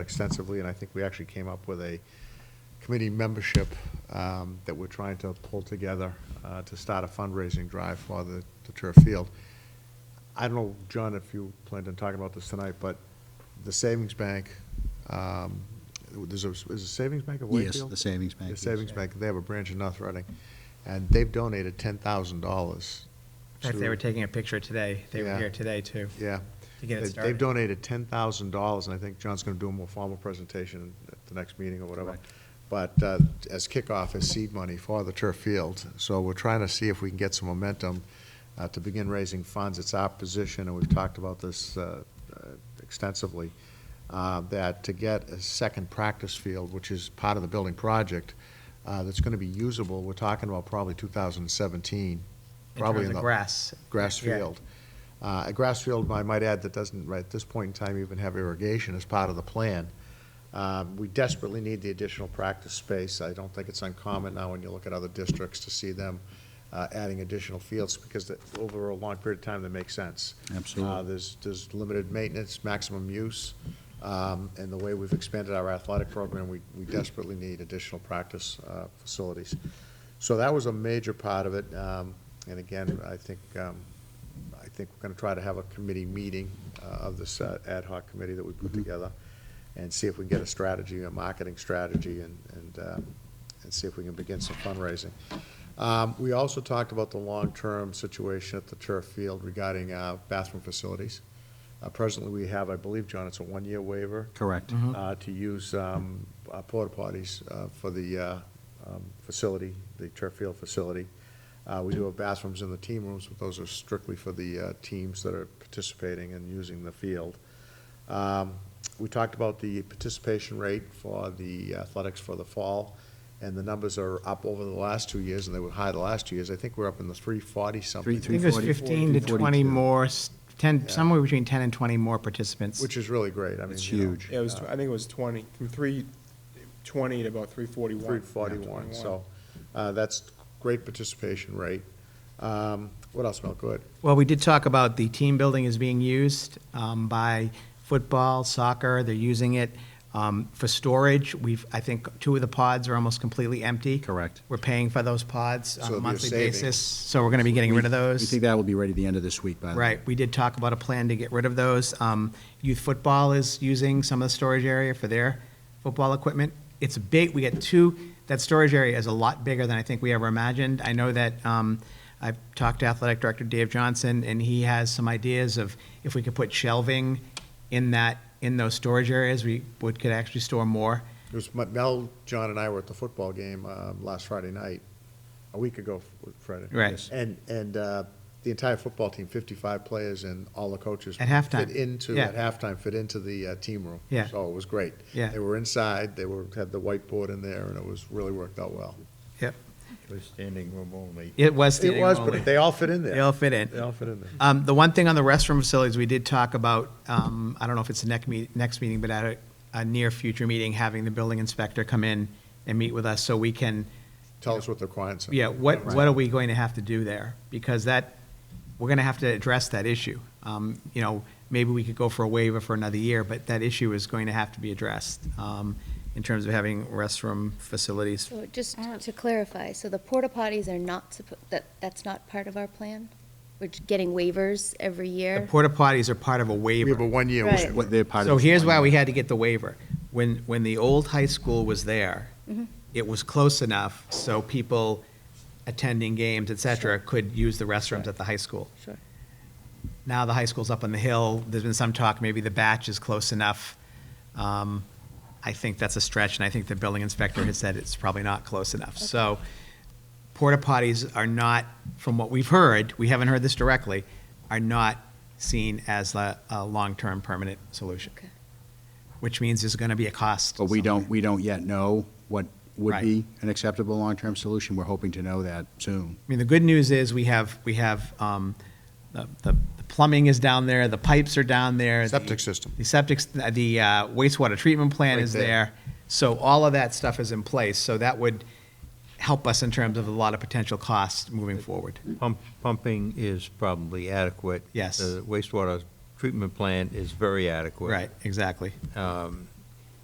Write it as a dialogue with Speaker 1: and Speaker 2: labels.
Speaker 1: extensively, and I think we actually came up with a committee membership um, that we're trying to pull together uh, to start a fundraising drive for the the turf field. I don't know, John, if you planned on talking about this tonight, but the savings bank, um, there's a, is it savings bank of
Speaker 2: Yes,
Speaker 1: Wakefield?
Speaker 2: the savings bank,
Speaker 1: The
Speaker 2: yes.
Speaker 1: savings bank, they have a branch in North Reading, and they've donated ten thousand dollars.
Speaker 3: In fact, they were taking a picture today. They
Speaker 1: Yeah.
Speaker 3: were here today, too.
Speaker 1: Yeah.
Speaker 3: To get it
Speaker 1: They- They've
Speaker 3: started.
Speaker 1: donated ten thousand dollars, and I think John's gonna do a more formal presentation at the next meeting or whatever.
Speaker 2: Correct.
Speaker 1: But uh, as kickoff, as seed money for the turf field, so we're trying to see if we can get some momentum uh, to begin raising funds. It's our position, and we've talked about this uh, uh, extensively, uh, that to get a second practice field, which is part of the building project, uh, that's gonna be usable, we're talking about probably two thousand and seventeen,
Speaker 3: In
Speaker 1: probably
Speaker 3: terms
Speaker 1: in
Speaker 3: of
Speaker 1: the
Speaker 3: grass.
Speaker 1: grass
Speaker 3: Yeah.
Speaker 1: field. Uh, A grass field, I might add, that doesn't, right at this point in time, even have irrigation as part of the plan. Um, We desperately need the additional practice space. I don't think it's uncommon now when you look at other districts to see them uh, adding additional fields because that- over a long period of time, that makes sense.
Speaker 2: Absolutely.
Speaker 1: Uh, There's, there's limited maintenance, maximum use, um, and the way we've expanded our athletic program, we we desperately need additional practice uh, facilities. So that was a major part of it. Um, And again, I think, um, I think we're going to try to have a committee meeting uh, of this uh, ad hoc committee that we put together and see if we can get a strategy, a marketing strategy, and, and, uh, and see if we can begin some fundraising. Um, We also talked about the long-term situation at the turf field regarding uh, bathroom facilities. Uh, Presently, we have, I believe, John, it's a one-year waiver
Speaker 2: Correct.
Speaker 1: uh, to use um, uh, porta potties uh, for the uh, um, facility, the turf field facility. Uh, We do have bathrooms in the team rooms, but those are strictly for the uh, teams that are participating and using the field. Um, We talked about the participation rate for the athletics for the fall, and the numbers are up over the last two years, and they were high the last two years. I think we're up in the 340-something.
Speaker 2: Three-
Speaker 3: I think it was
Speaker 2: 340,
Speaker 3: 15 to 20
Speaker 2: 242.
Speaker 3: more, s- 10,
Speaker 1: Yeah.
Speaker 3: somewhere between 10 and 20 more participants.
Speaker 1: Which is really great. I mean,
Speaker 2: It's
Speaker 1: you know,
Speaker 2: huge.
Speaker 4: Yeah, it was, I think it was 20, from 320 to about 341.
Speaker 1: 341, so uh, that's great participation rate. Um, What else, Mel? Go ahead.
Speaker 3: Well, we did talk about the team building is being used um, by football, soccer, they're using it um, for storage. We've, I think, two of the pods are almost completely empty.
Speaker 2: Correct.
Speaker 3: We're paying for those pods
Speaker 1: So
Speaker 3: on
Speaker 1: it'll
Speaker 3: a
Speaker 1: be a
Speaker 3: monthly
Speaker 1: savings.
Speaker 3: basis, so we're going to be getting rid of those.
Speaker 2: We think that will be ready the end of this week, by the way.
Speaker 3: Right, we did talk about a plan to get rid of those. Um, Youth football is using some of the storage area for their football equipment. It's big, we get two, that storage area is a lot bigger than I think we ever imagined. I know that, um, I've talked to Athletic Director Dave Johnson, and he has some ideas of if we could put shelving in that, in those storage areas, we would, could actually store more.
Speaker 1: It was, my- Mel, John, and I were at the football game um, last Friday night, a week ago, f- Friday.
Speaker 3: Right. Yes.
Speaker 1: And, and uh, the entire football team, 55 players and all the coaches.
Speaker 3: At halftime.
Speaker 1: Fit into,
Speaker 3: Yeah.
Speaker 1: at halftime, fit into the uh, team room.
Speaker 3: Yeah.
Speaker 1: So it was great.
Speaker 3: Yeah.
Speaker 1: They were inside, they were, had the whiteboard in there, and it was, really worked out well.
Speaker 3: Yep,
Speaker 5: It was standing room only.
Speaker 3: it was
Speaker 1: It
Speaker 3: standing
Speaker 1: was,
Speaker 3: room only.
Speaker 1: but they all fit in there.
Speaker 3: They all fit in.
Speaker 1: They all fit in there.
Speaker 3: Um, the one thing on the restroom facilities, we did talk about, um, I don't know if it's the next meet, next meeting, but at a, a near future meeting, having the building inspector come in and meet with us so we can,
Speaker 1: Tell us what the clients are.
Speaker 3: yeah, what, what are we going to have to do there? Because that, we're gonna have to address that issue. Um, you know, maybe we could go for a waiver for another year, but that issue is going to have to be addressed, um, in terms of having restroom facilities.
Speaker 6: So just to clarify, so the porta potties are not, suppo- that, that's not part of our plan? We're j- getting waivers every
Speaker 3: The
Speaker 6: year?
Speaker 3: porta potties are part of a
Speaker 1: We
Speaker 3: waiver.
Speaker 1: have a one-year.
Speaker 6: Right.
Speaker 1: waiver.
Speaker 2: What they're part of.
Speaker 3: So
Speaker 2: this
Speaker 3: here's why
Speaker 2: plan.
Speaker 3: we had to get the waiver. When, when the old high school was there,
Speaker 6: Mm-hmm.
Speaker 3: it was close enough so people attending games, et cetera, could use the restrooms at the high school.
Speaker 6: Sure.
Speaker 3: Now the high school's up on the hill, there's been some talk, maybe the batch is close enough. Um, I think that's a stretch, and I think the building inspector has said it's probably not close enough. So porta potties are not, from what we've heard, we haven't heard this directly, are not seen as a, a long-term permanent solution.
Speaker 6: Okay.
Speaker 3: Which means there's gonna be a cost.
Speaker 2: But we don't,
Speaker 3: somewhere.
Speaker 2: we don't yet know what would
Speaker 3: Right.
Speaker 2: be an acceptable long-term solution. We're hoping to know that soon.
Speaker 3: I mean, the good news is we have, we have, um, the, the the plumbing is down there, the pipes are down there. the-
Speaker 1: Septic system.
Speaker 3: The septic, the uh, wastewater treatment plant
Speaker 1: Right
Speaker 3: is
Speaker 1: there.
Speaker 3: there. So all of that stuff is in place, so that would help us in terms of a lot of potential costs moving forward.
Speaker 5: Pump, pumping is probably adequate.
Speaker 3: Yes.
Speaker 5: The wastewater treatment plant is very adequate.
Speaker 3: Right, exactly.
Speaker 5: Um,